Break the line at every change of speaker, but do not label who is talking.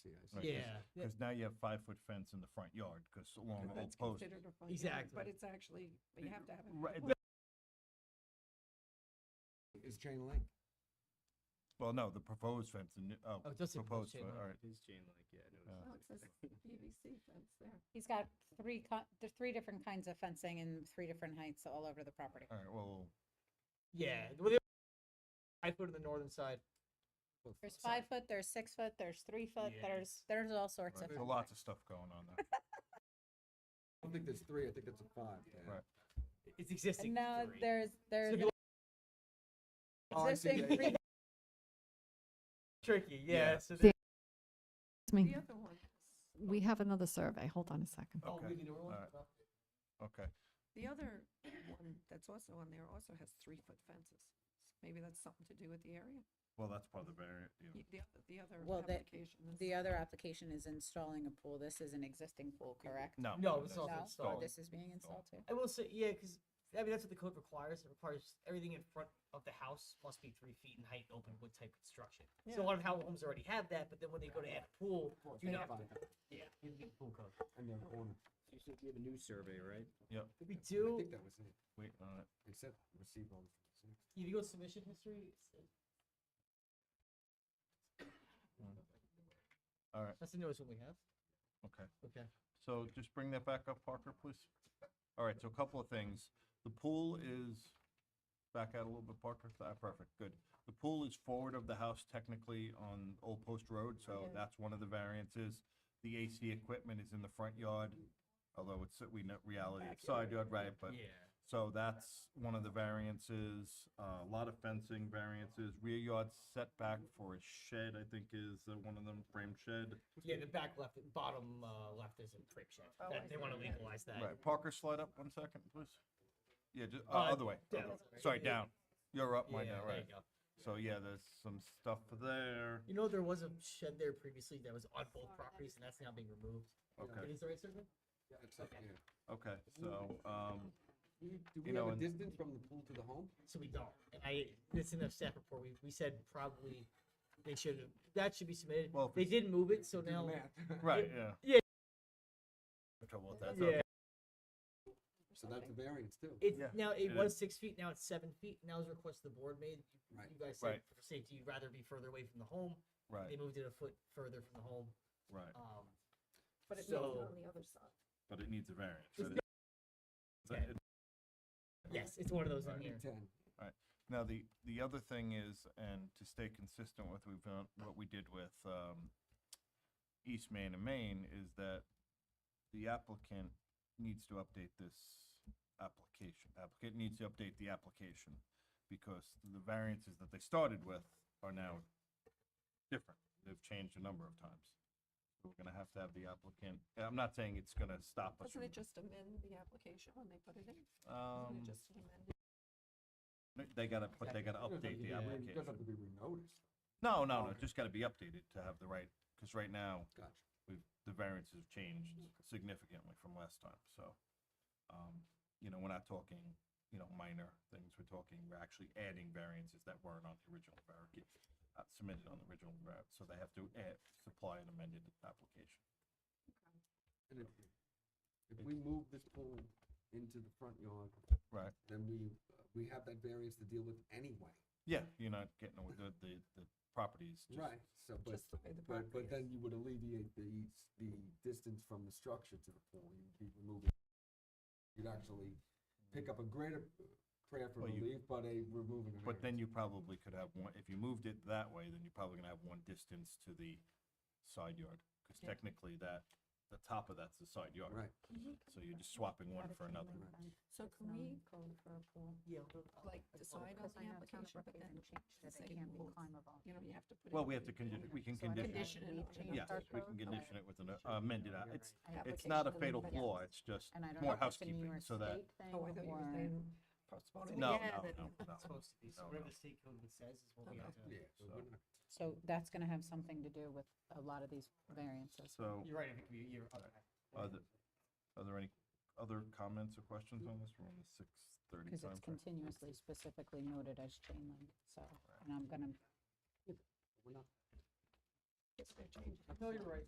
spaces.
Right.
Yeah,
Because now you have five-foot fence in the front yard, because along the whole
That's
post.
considered a front yard,
Exactly.
but it's actually, but you have to have it.
Right,
Is chain link.
Well, no, the proposed fence, the new, oh.
Oh, it does say proposed chain
fe-
link.
All right,
It is chain link, yeah, I noticed.
Oh, it says PVC fence there.
He's got three, co- there's three different kinds of fencing and three different heights all over the property.
all right, well,
yeah. Well, they- I put it on the northern side.
both
There's
sides.
five foot, there's six foot, there's three foot,
Yeah.
there's, there's all sorts
right,
of.
there's
fencing.
lots of stuff going on there.
I don't think there's three, I think it's a five. Dan.
Right.
It's existing.
No,
three.
there's,
So
there's
if you look
Oh, I see,
existing
yeah, yeah.
three,
tricky, yeah.
Yeah.
So
The- Excuse
The
me,
other one,
we have another survey. Hold on a second.
oh, we
Okay,
can do it.
all right. okay.
the other one that's also on there also has three-foot fences. Maybe that's something to do with the area.
Well, that's part of the variant, yeah.
Y- The, oth- the other
Well, that-
application is.
the other application is installing a pool. This is an existing pool, correct?
No.
No,
that's
it's not
No?
installed.
This is being installed too.
I will say, yeah, because I mean that's what the code requires. It requires everything in front of the house must be three feet in height, open wood type construction. So a lot of how homes already have that, but then when they go to add a pool,
Four,
you know,
five, five,
yeah, you need pool code.
And then corner.
You said you have a new survey, right?
We
I
do.
think that was it,
Wait, all right.
except receive all. the consent.
If you go to submission history, it's-
all right,
that's the newest one we have.
okay.
Okay.
So just bring that back up, Parker, please. All right, so a couple of things. The pool is, back out a little bit, Parker. Ah, perfect, good. The pool is forward of the house technically on Old Post Road, so
Yeah.
that's one of the variances. The AC equipment is in the front yard, although it's, we know, reality, it's side yard, right, but. So that's one of the variances, uh, a lot of fencing variances, rear yard setback for a shed, I think is uh, one of them, frame shed.
Yeah, the back left, bottom uh, left is in prick shed.
Oh,
That-
I
they want to
see.
legalize that.
Right, Parker, slide up one second, please. Yeah, just, uh,
Uh,
other way,
down.
other way. sorry, down, you're up,
Yeah,
mine now,
there
right?
you go.
So, yeah, there's some stuff there,
You know, there was a shed there previously that was on both properties, and that's now being removed.
okay,
It is the right survey?
Yeah, except, yeah.
okay, so, um,
Do we- Do we
You know,
have a
and-
distance from the pool to the home?
So we don't. And I, it's in the staff report, we, we said probably they should have, that should be submitted.
Well, if
They
it's-
did move it, so
Do the
now.
math.
right, yeah.
Yeah.
No Trouble with that, so-
Yeah,
So that's a variance too.
it,
Yeah,
now
it
it was six feet, now it's seven feet. Now it's a request the board made. You-
Right.
You guys said
Right.
for safety, you'd rather be further away from the home. They
right,
moved it a foot further from the home.
right,
Um,
But it makes it
so-
on the other side.
but it needs a variance.
It's
right?
Okay.
It-
yes, it's one of those in
Right.
here.
Ten.
Now, the, the other thing is, and to stay consistent with we've done, what we did with, um, East Main and Maine is that the applicant needs to update this application. Applicant needs to update the application because the variances that they started with are now different. They've changed a number of times. So We're gonna have to have the applicant, and I'm not saying it's gonna stop us.
Doesn't
from-
it just amend the application when they put it in? Isn't
Um,
it just an amendment?
they gotta, but they gotta update the
Yeah,
application.
It doesn't have to be renoticed.
No, no, no,
Okay.
just gotta be updated to have the right, because right now,
Gotcha.
we've, the variances have changed
Mm-hmm.
significantly from last time, so. Um, you know, we're not talking, you know, minor things, we're talking, we're actually adding variances that weren't on the original variance, uh, submitted on the original variance, so they have to add, supply an amended application.
And if, if we move this pool into the front yard,
Right.
then we, we have that variance to deal with anyway.
Yeah, you're not getting, away- the, the, the properties just.
Right, so, but,
Just the way the
but,
property
but
is.
then you would alleviate the, the distance from the structure to the pool, you'd be removing. You'd actually pick up a greater prayer for
Well, you-
relief, but a removing a
But then
variance.
you probably could have one, if you moved it that way, then you're probably gonna have one distance to the side yard, because
Yeah.
technically that, the top of that's the side yard.
Right,
So you're just swapping one for another.
So can we,
Code for a pool.
Yeah.
like, decide on the
Um, Because I know town
application,
of
but then,
Brookhaven changed that
say
it can't be
pools.
climbable.
you know, you have to put it.
Well, we
in
have to condition, we can
So I think
condition,
that's
Condition
what
it.
we changed
yeah, we
our code
can
for.
condition it with an uh, amended, app- it's, it's not a
application.
fatal
Yes.
flaw, it's just
And I don't
more
know if it's a New
housekeeping,
York
so that,
State thing
Oh, I thought you were
or-
saying postpone it.
no, no,
Yeah, that-
no, no.
It's supposed to be, so
No,
whatever
no.
the state code says is what we have to.
yeah, so we're not-
So that's gonna have something to do with a lot of these variances.
So,
You're right, I think you- you're. okay.
are the- are there any other comments or questions on this? We're on the six thirty
Because it's
timeframe.
continuously specifically noted as chain link, so, and I'm gonna
we're not
Just gonna change it.
No, you're right.